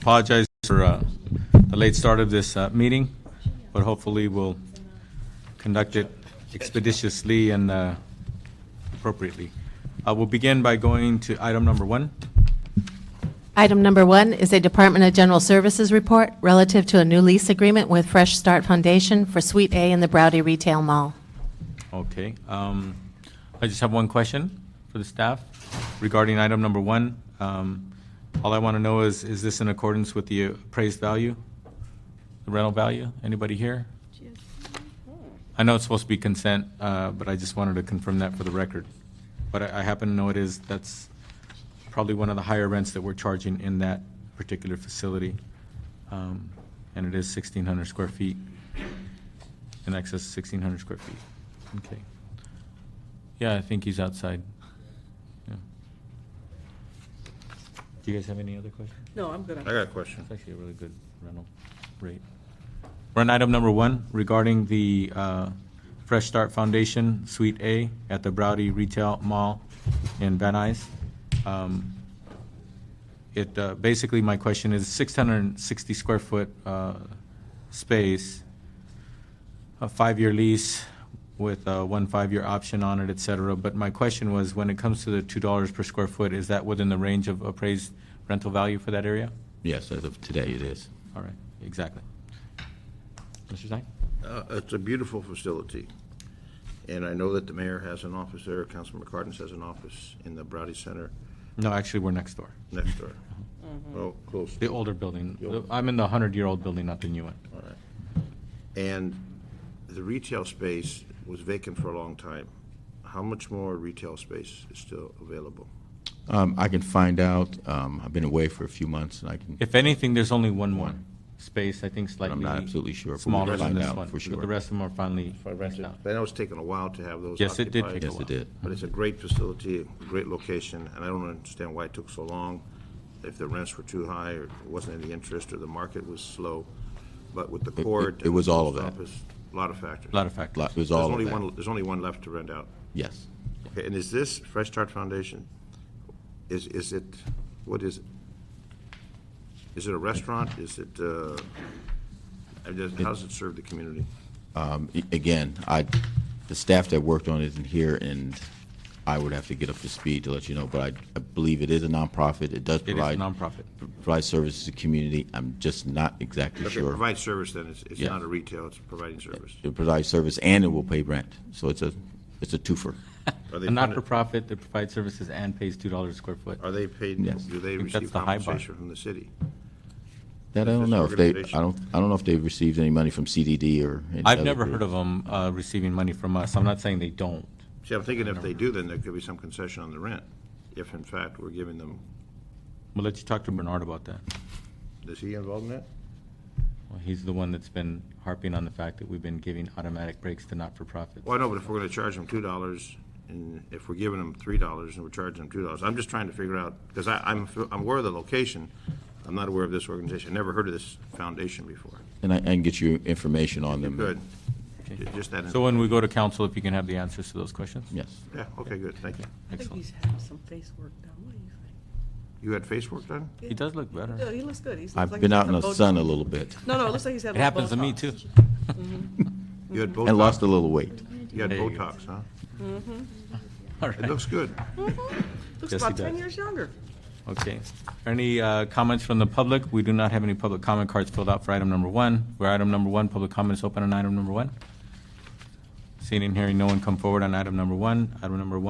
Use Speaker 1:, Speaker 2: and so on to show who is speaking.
Speaker 1: apologize for uh, the late start of this uh, meeting, but hopefully we'll conduct it expeditiously and uh, appropriately. Uh, We'll begin by going to item number one.
Speaker 2: Item number one is a Department of General Services report relative to a new lease agreement with Fresh Start Foundation for Suite A in the Browdy Retail Mall.
Speaker 1: Okay. um, I just have one question for the staff regarding item number one. Um, All I want to know is, is this in accordance with the appraised value, the rental value? Anybody here? I know it's supposed to be consent, uh, but I just wanted to confirm that for the record. But I I happen to know it is, that's probably one of the higher rents that we're charging in that particular facility. Um, And it is 1,600 square feet, in excess of 1,600 square feet. Okay. Yeah, I think he's outside. Yeah. Do you guys have any other questions?
Speaker 3: No, I'm good.
Speaker 4: I got a question.
Speaker 1: It's actually a really good rental rate. We're on item number one regarding the uh, Fresh Start Foundation Suite A at the Browdy Retail Mall in Van Nuys. Um, It, uh, basically, my question is 660 square foot uh, space, a five-year lease with uh, one five-year option on it, et cetera. But my question was, when it comes to the $2 per square foot, is that within the range of appraised rental value for that area?
Speaker 5: Yes, as of today, it is.
Speaker 1: All right, exactly. Mr. Zhang?
Speaker 4: Uh, It's a beautiful facility, and I know that the mayor has an office there, Councilman McCartney has an office in the Browdy Center
Speaker 1: No, actually, we're next door.
Speaker 4: next door. Oh, close.
Speaker 1: The older building.
Speaker 4: The old-
Speaker 1: I'm in the 100-year-old building, not the new one.
Speaker 4: All right. And the retail space was vacant for a long time. How much more retail space is still available?
Speaker 5: Um, I can find out. Um, I've been away for a few months, and I can.
Speaker 1: If anything, there's only one more space, I think slightly.
Speaker 5: not absolutely sure, but we
Speaker 1: Smaller
Speaker 5: can
Speaker 1: than
Speaker 5: find
Speaker 1: this
Speaker 5: out
Speaker 1: one.
Speaker 5: for
Speaker 1: but
Speaker 5: sure.
Speaker 1: The rest of them are finally
Speaker 4: rented.
Speaker 1: rented out.
Speaker 4: I know it's taken a while to have those
Speaker 1: Yes, it did
Speaker 4: occupied.
Speaker 1: take a
Speaker 5: Yes, it did.
Speaker 4: But it's a great facility, a great location, and I don't understand why it took so long, if the rents were too high, or there wasn't any interest, or the market was slow. But with the
Speaker 5: it-
Speaker 4: court.
Speaker 5: it was all of that.
Speaker 4: A lot of factors.
Speaker 1: A lot of
Speaker 5: Lo- It
Speaker 1: factors.
Speaker 5: was
Speaker 4: There's
Speaker 5: all
Speaker 4: only
Speaker 5: of that.
Speaker 4: one, there's only one left to rent out.
Speaker 5: Yes.
Speaker 4: Okay, and is this Fresh Start Foundation, is, is it, what is it? Is it a restaurant? Is it, uh, I just- how does it serve the community?
Speaker 5: Um, a- again, I, the staff that worked on it isn't here, and I would have to get up to speed to let you know. But I, I believe it is a nonprofit. It does
Speaker 1: It is
Speaker 5: provide
Speaker 1: a nonprofit.
Speaker 5: provide services to the community. I'm just not exactly
Speaker 4: Okay,
Speaker 5: sure.
Speaker 4: provide service then, it's, it's
Speaker 5: Yes.
Speaker 4: not a retail, it's providing service.
Speaker 5: It provides service, and it will pay rent. So it's a it's a
Speaker 4: Are
Speaker 5: twofer.
Speaker 4: they
Speaker 1: A
Speaker 4: funded-
Speaker 1: not-for-profit that provides services and pays $2 a square foot.
Speaker 4: Are they paid,
Speaker 5: Yes.
Speaker 4: do they
Speaker 1: I think that's
Speaker 4: receive
Speaker 1: the high bar.
Speaker 4: compensation from the city?
Speaker 5: That I don't
Speaker 4: This
Speaker 5: know if they.
Speaker 4: organization-
Speaker 5: I don't. I don't know if they've received any money from CDD or. any
Speaker 1: I've
Speaker 5: other
Speaker 1: never
Speaker 5: group.
Speaker 1: heard of them uh, receiving money from us. I'm not saying they don't.
Speaker 4: See, I'm thinking if they do, then there could be some concession on the rent, if in fact we're giving them,
Speaker 1: We'll let you talk to Bernard about that.
Speaker 4: is he involved in that?
Speaker 1: Well, He's the one that's been harping on the fact that we've been giving automatic breaks to not-for-profits.
Speaker 4: Well, I know, but if we're gonna charge them two dollars, and if we're giving them three dollars and we're charging them two dollars, I'm just trying to figure out, because I, I'm, I'm aware of the location, I'm not aware of this organization, never heard of this foundation before.
Speaker 5: And I, I can get you information on them.
Speaker 4: Good, Ju- just that,
Speaker 1: Mm-hmm. So when we go to council, if you can have the answers to those questions?
Speaker 5: Yes.
Speaker 4: yeah, okay, good, thank you.
Speaker 3: I think
Speaker 1: Excellent.
Speaker 3: he's had some face work done. What do you think?
Speaker 4: You had face work done?
Speaker 1: He does look better.
Speaker 3: Yeah, he looks good. He's
Speaker 5: I've been out in the sun a little bit
Speaker 3: No, no, it looks like he's had.
Speaker 1: It happens to me,
Speaker 3: Botox.
Speaker 1: too.
Speaker 4: You had
Speaker 5: and
Speaker 4: Botox,
Speaker 5: lost a little weight.
Speaker 4: you had
Speaker 1: There you go.
Speaker 4: Botox, huh?
Speaker 1: All
Speaker 4: It
Speaker 1: right,
Speaker 4: looks good.
Speaker 3: Mm-hmm.
Speaker 1: Yes,
Speaker 3: Looks
Speaker 1: he
Speaker 3: about ten
Speaker 1: does.
Speaker 3: years younger.
Speaker 1: okay. Any uh, comments from the public? We do not have any public comment cards filled out for item number one. For item number one, public comment is open on item number one. Seeing and hearing no one come forward on item number one. Item number one.